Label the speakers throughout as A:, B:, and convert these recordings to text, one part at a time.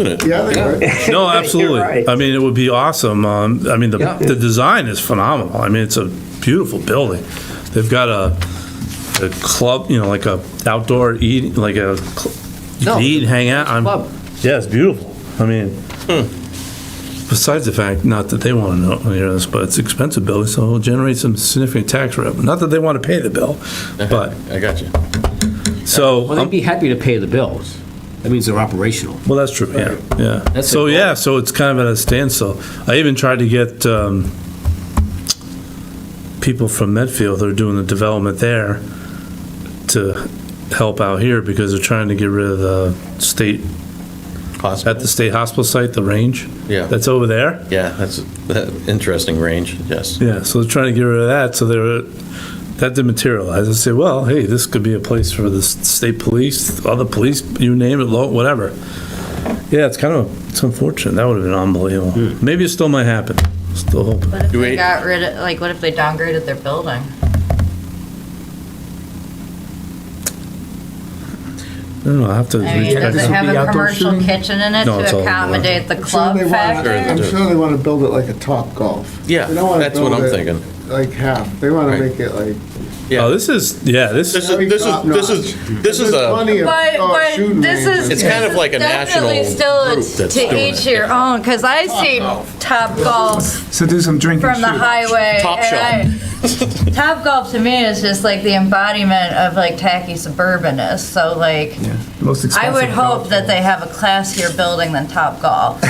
A: isn't it?
B: Yeah, they would.
A: No, absolutely.
C: right.
A: I mean, it would be awesome. Um, I mean, the,
C: Yeah.
A: the design is phenomenal. I mean, it's a beautiful building. They've got a, a club, you know, like a outdoor eat, like a, cl- you
C: No,
A: can eat, and hang out. I'm-
C: club.
A: Yeah, it's beautiful. I mean,
B: Hmm.
A: besides the fact, not that they want to know, you know, this, but it's expensive bill, so it'll generate some significant tax revenue. Not that they want to pay the bill, but,
D: I got you.
A: so,
C: Well,
A: um,
C: they'd be happy to pay the bills. That means they're operational.
A: well, that's true, yeah, yeah.
C: That's
A: So,
C: the goal.
A: yeah, so it's kind of at a standstill. I even tried to get um, people from Medfield, that are doing the development there, to help out here, because they're trying to get rid of the state, at
D: Hospital?
A: the state hospital site, the range.
D: Yeah.
A: That's over there.
D: Yeah, that's an interesting range, yes.
A: Yeah, so they're trying to get rid of that, so they're, that didn't materialize. I say, well, hey, this could be a place for the s- state police, other police, you name it, lo- whatever. Yeah, it's kind of, it's unfortunate. That would have been unbelievable. Maybe it still might happen. Still hoping.
E: What if
D: Do we-
E: they got rid of, like, what if they downgraded their building?
A: I don't know, I have to.
E: I mean, does it
A: recheck.
E: have
F: be
E: a
F: outdoor
E: commercial
F: shooting?
E: kitchen in it
A: No, it's
E: to
A: all outdoor.
E: accommodate the
B: I'm sure
E: club
B: they wanna,
E: factor?
B: I'm sure they wanna build it like a top golf.
D: Yeah,
B: They don't wanna
D: that's what
B: build
D: I'm
B: it
D: thinking.
B: Like half, they wanna
D: Right.
B: make it like.
A: Oh,
D: Yeah,
A: this is, yeah, this,
D: this is, this is, this is, this is
B: There's
D: a,
B: plenty of
E: But,
B: golf shooting
E: but this
B: ranges.
E: is.
D: It's kind of like a
E: definitely
D: national group
E: Still,
D: that's
E: to
D: doing
E: each
D: it.
E: your own, because I see Top Golf
F: So do some drinking.
E: from the highway.
D: Top
E: and I- Top Golf to me is just like the embodiment of like tacky suburbanness, so like,
F: Most
E: I
F: expensive.
E: would hope that they have a classier building than Top Golf.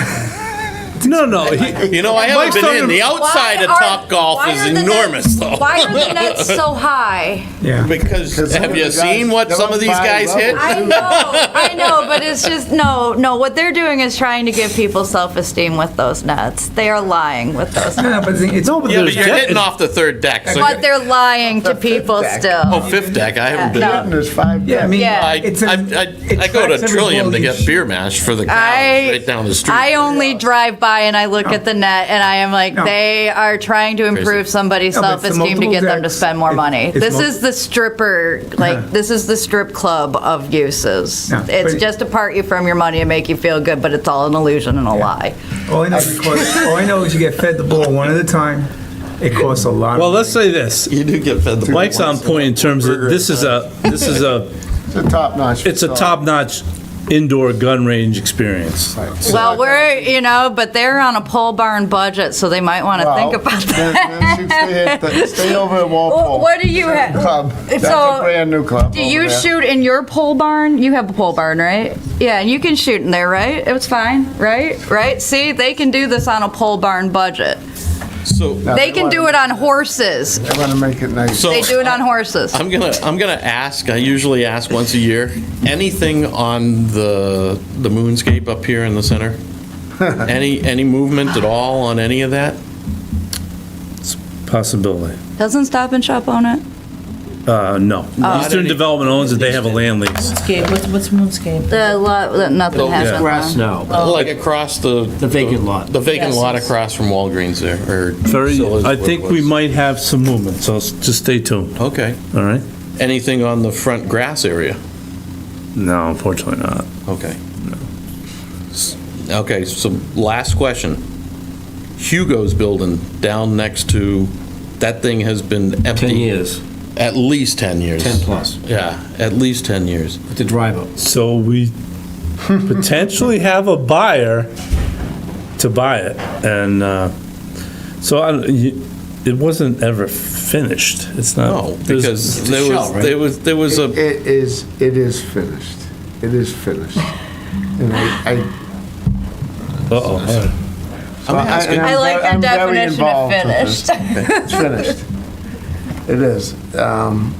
A: no, no, he-
D: you know, I haven't
A: Mike's
D: been in,
A: talking-
D: the outside of
E: Why are-
D: Top Golf
E: why
D: is
E: are the
D: enormous,
E: nets-
D: though.
E: Why are the nets so high?
F: Yeah.
D: Because,
B: Because some
D: have
B: of
D: you
B: the guys-
D: seen what some of these
B: They're
D: guys hit?
B: five
E: I know, I know, but it's just no, no. What they're doing is trying to give people self-esteem with those nets. They are lying with those.
F: No,
E: nets.
F: no, but the thing- it's all.
D: Yeah, but you're hitting off the third deck, so,
E: But
D: you're-
E: they're lying to people still.
D: oh, fifth deck, I haven't been
E: No.
D: in.
B: And there's five.
F: Yeah, I mean,
E: Yeah.
D: I,
F: It's a-
D: I, I, I
F: it
D: go
F: tracks
D: to
F: every
D: Trillium to
F: blow you
D: get
F: sh-
D: beer mash for the cows
E: I-
D: right down the street.
E: I only drive by and I look at the net and I am like,
F: No.
E: they are trying to improve somebody's
F: No, but it's the
E: self-esteem to get them to
F: multiple
E: spend more
F: decks.
E: money.
F: It's
E: This
F: mul-
E: is the stripper, like, this is the strip club of uses.
F: Yeah,
E: It's
F: but-
E: just to part you from your money and make you feel good, but it's all an illusion and a lie.
F: All I know is it costs- all I know is you get fed the ball one at a time. It costs a lot. of
A: well,
F: money.
A: let's say this.
D: You do get fed the
A: Mike's on point in terms of, this is a, this is a,
B: It's a top notch.
A: it's a top-notch indoor gun range experience.
E: Well, we're, you know, but they're on a pole barn budget, so they might want to think about
B: Then, then
E: that.
B: shoot- stay, at the- stay over at Walpole.
E: Well, what do you have?
B: Club. That's
E: So,
B: a brand new club.
E: Do
B: over
E: you
B: there.
E: shoot in your pole barn? You have a pole barn, right? Yeah, and you can shoot in there, right? It was fine, right? Right? See, they can do this on a pole barn budget.
D: So,
B: No,
E: They can
B: wanna-
E: do it on horses.
B: They want to make it nice.
D: so
E: They do it on horses.
D: I'm gonna I'm gonna ask. I usually ask once a year. Anything on the the moonscape up here in the center? any any movement at all on any of that?
A: Possibility.
E: Doesn't Stop and Shop own it?
A: Uh, no.
D: Not
A: Eastern
D: any-
A: Development owns it, they have a land lease.
G: Moonscape, what's, what's Moonscape?
E: The lot that nothing
D: has
E: has
A: been
C: Grass now,
D: like across the
C: Um, the vacant lot.
D: the vacant
G: Yes,
D: lot
G: yes.
D: across from Walgreens there or
A: Very,
D: Silla's,
A: I
D: what it
A: think we
D: was.
A: might have some movement, so s- just stay tuned,
D: Okay.
A: all right?
D: Anything on the front grass area?
A: No, unfortunately not.
D: Okay. S- Okay, so last question. Hugo's building down next to, that thing has been empty.
C: 10 years,
D: At least 10 years.
C: 10 plus,
D: Yeah, at least 10 years.
C: with the drive up.
A: So we potentially have a buyer to buy it, and, uh, so I, you- it wasn't ever finished, it's not.
C: Oh,
D: No,
A: there's-
D: because
C: a
D: there
C: shell,
D: was,
C: right?
D: there was, there was
B: It
D: a,
B: it is, it is finished. It is finished. And I, I-
A: Uh-oh.
D: I'm
B: I-
D: asking,
B: and
E: I like
B: ve-
E: your
B: I'm very
E: definition of
B: involved with this.
E: finished.
B: It's finished. It is. Um,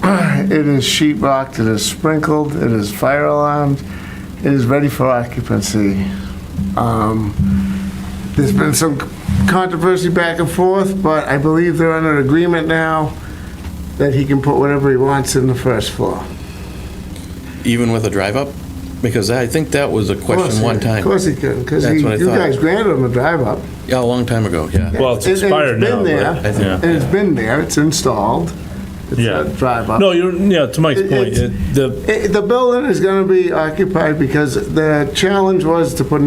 B: It is sheet rocked, it is sprinkled, it is fire alarmed, it is ready for occupancy. Um, There's been some controversy back and forth, but I believe they're under agreement now that he can put whatever he wants in the first floor.
D: even with a drive-up? Because I think that was a
B: Of course
D: question
B: he-
D: one
B: Of
D: time.
B: course he can, because
D: That's what I
B: you
D: thought.
B: guys granted him a drive up.
D: Yeah, a long time ago, yeah.
A: Well, it's
B: And- and
A: expired now.
B: been
A: but-
B: there,
D: I think-
A: yeah.
B: And it's been there, it's installed, It's
A: Yeah.
B: a drive up.
A: No, you're, yeah, to Mike's
B: It-
A: point,
B: it's-
A: it- the
B: It- The building is going to be occupied because the challenge was to put an